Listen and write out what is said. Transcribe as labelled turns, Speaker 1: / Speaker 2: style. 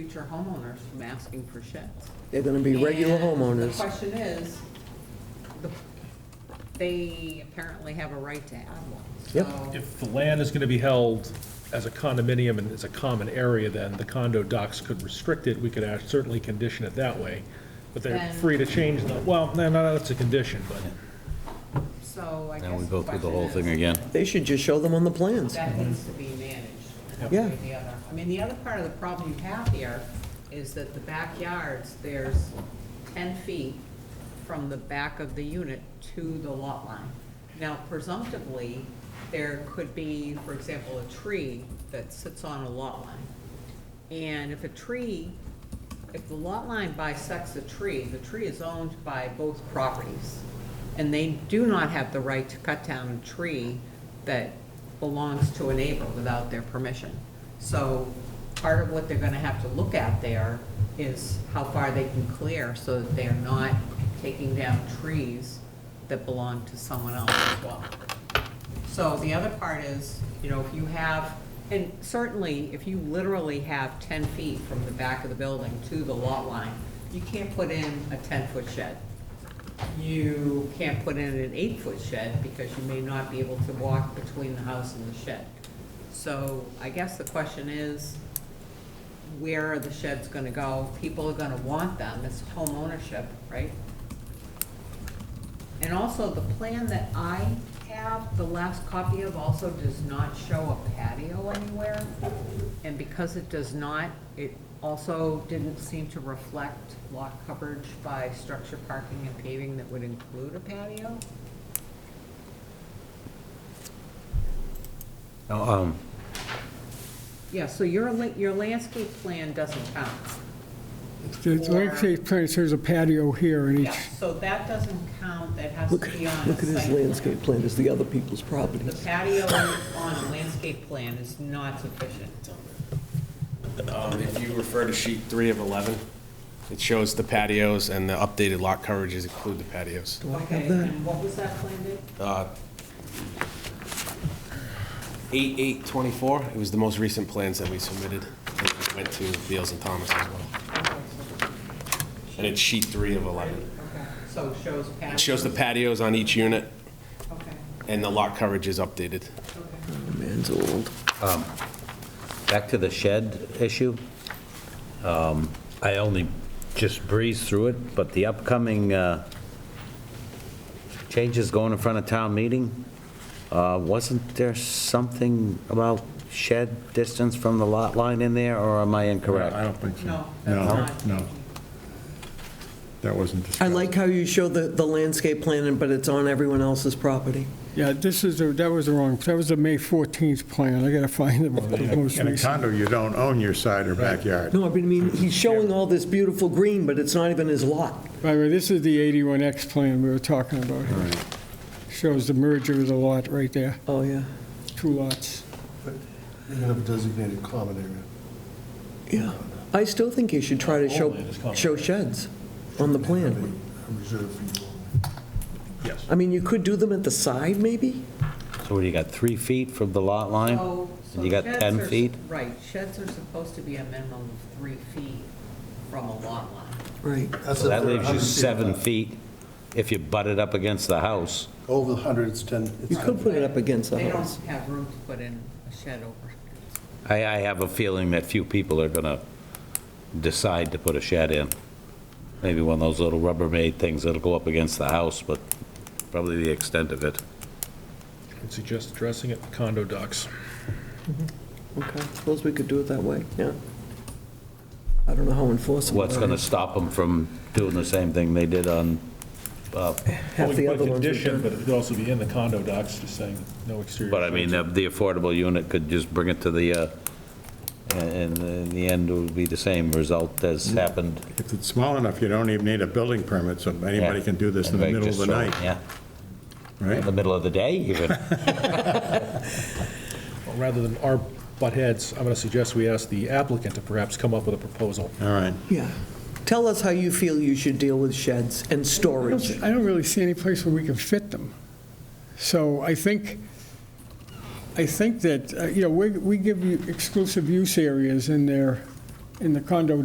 Speaker 1: future homeowners from asking for sheds.
Speaker 2: They're gonna be regular
Speaker 1: And The
Speaker 2: homeowners.
Speaker 1: question is, the- they apparently have a right to have one.
Speaker 2: Yep.
Speaker 1: So
Speaker 3: If the land is going to be held as a condominium and it's a common area, then the condo docs could restrict it. We could act- certainly condition it that way, but they're
Speaker 1: Then-
Speaker 3: free to change the, well, no, no, that's a condition, but
Speaker 1: So I guess.
Speaker 4: Now we go through the
Speaker 1: question
Speaker 4: whole thing
Speaker 1: is,
Speaker 4: again.
Speaker 2: They should just show them on the plans.
Speaker 1: That needs to be managed. one way
Speaker 2: Yeah.
Speaker 1: or the other. I mean, the other part of the problem you have here is that the backyards, there's ten feet from the back of the unit to the lot line. Now presumptively, there could be, for example, a tree that sits on a lot line. And if a tree, if the lot line bisects a tree, the tree is owned by both properties. And they do not have the right to cut down a tree that belongs to a neighbor without their permission. So part of what they're gonna have to look at there is how far they can clear so that they're not taking down trees that belong to someone else as well. So the other part is, you know, if you have, and certainly if you literally have ten feet from the back of the building to the lot line, you can't put in a ten-foot shed. You can't put in an eight-foot shed because you may not be able to walk between the house and the shed. So I guess the question is, where are the sheds gonna go? People are gonna want them, it's home ownership, right? And also, the plan that I have, the last copy of, also does not show a patio anywhere. And because it does not, it also didn't seem to reflect lot coverage by structure, parking, and paving that would include a patio.
Speaker 4: Now, um,
Speaker 1: Yeah, so your, la- your landscape plan doesn't count.
Speaker 5: The landscape plan says a patio here in
Speaker 1: Yeah,
Speaker 5: each,
Speaker 1: so that doesn't count, that has to
Speaker 2: Look,
Speaker 1: be on a
Speaker 2: look at his
Speaker 1: site plan.
Speaker 2: landscape plan, it's the other people's
Speaker 1: The
Speaker 2: properties.
Speaker 1: patio on a landscape plan is not sufficient.
Speaker 6: Um, If you refer to sheet three of 11, it shows the patios and the updated lot coverages include the patios.
Speaker 1: Okay, and what was that plan, Dick?
Speaker 6: Uh, 8824, it was the most recent plans that we submitted, and it went to Beals and Thomas as well. And it's sheet three of 11.
Speaker 1: Okay, So it shows patio.
Speaker 6: It shows the patios on each unit
Speaker 1: Okay,
Speaker 6: and the lot coverage is updated.
Speaker 1: okay.
Speaker 2: The man's old.
Speaker 4: back to the shed issue. Um, I only just breezed through it, but the upcoming uh, changes going in front of town meeting, uh, wasn't there something about shed distance from the lot line in there, or am I incorrect?
Speaker 7: I don't think so.
Speaker 1: No, that's not.
Speaker 7: No, that wasn't discussed.
Speaker 2: I like how you show the, the landscape plan, but it's on everyone else's property.
Speaker 5: yeah, this is, the- that was the wrong, that was the May 14th plan, I gotta find the the most
Speaker 7: In a
Speaker 5: recent.
Speaker 7: condo, you don't own your side or backyard.
Speaker 2: No, I mean, he's showing all this beautiful green, but it's not even his lot.
Speaker 5: By the way, this is the 81X plan we were talking about here. Shows the merger of the lot right there,
Speaker 2: Oh, yeah.
Speaker 5: two lots.
Speaker 8: You have a designated common area.
Speaker 2: Yeah. I still think you should try to show, show sheds on the
Speaker 8: Have
Speaker 2: plan.
Speaker 8: a- a Reserve for you only.
Speaker 3: yes.
Speaker 2: I mean, you could do them at the side, maybe?
Speaker 4: So what, you got three feet from the lot line?
Speaker 1: So- Oh, so
Speaker 4: You got
Speaker 1: sheds
Speaker 4: 10
Speaker 1: are-
Speaker 4: feet?
Speaker 1: Right, sheds are supposed to be a minimum of three feet from a lot line.
Speaker 2: Right.
Speaker 8: That's
Speaker 4: So
Speaker 8: if
Speaker 4: that
Speaker 8: they're
Speaker 4: leaves you
Speaker 8: 100 feet
Speaker 4: seven
Speaker 8: apart.
Speaker 4: feet if you butt it up against the house.
Speaker 8: Over the 100, it's 10. it's
Speaker 2: You could put it up against the
Speaker 1: They don't
Speaker 2: house.
Speaker 1: have room to put in a shed over.
Speaker 4: I, I have a feeling that few people are going to decide to put a shed in. Maybe one of those little Rubbermaid things that'll go up against the house, but probably the extent of it.
Speaker 3: I'd suggest addressing it in the condo docs.
Speaker 2: Okay, suppose we could do it that way, yeah. I don't know how enforceable.
Speaker 4: What's
Speaker 2: that
Speaker 4: going to
Speaker 2: is.
Speaker 4: stop them from doing the same thing they did on, uh,
Speaker 2: Half the other ones we've
Speaker 3: Condition,
Speaker 2: done.
Speaker 3: but it could also be in the condo docs, just saying no exterior.
Speaker 4: but I mean, uh, the the affordable unit could just bring it to the, uh, and and in the end, it would be the same result as
Speaker 7: Mm.
Speaker 4: happened.
Speaker 7: If it's small enough, you don't even need a building permit, so anybody
Speaker 4: Yeah.
Speaker 7: can do this in the
Speaker 4: Anybody
Speaker 7: middle
Speaker 4: just
Speaker 7: of the
Speaker 4: throw it,
Speaker 7: night,
Speaker 4: Yeah, in
Speaker 7: right?
Speaker 4: the middle of the day even.
Speaker 3: Well, Rather than our butt heads, I'm going to suggest we ask the applicant to perhaps come up with a proposal.
Speaker 7: All right.
Speaker 2: Yeah. Tell us how you feel you should deal with sheds and
Speaker 5: I
Speaker 2: storage.
Speaker 5: don't- I don't really see any place where we can fit them. So I think, I think that, uh, you know, we, we give you exclusive use areas in there in the condo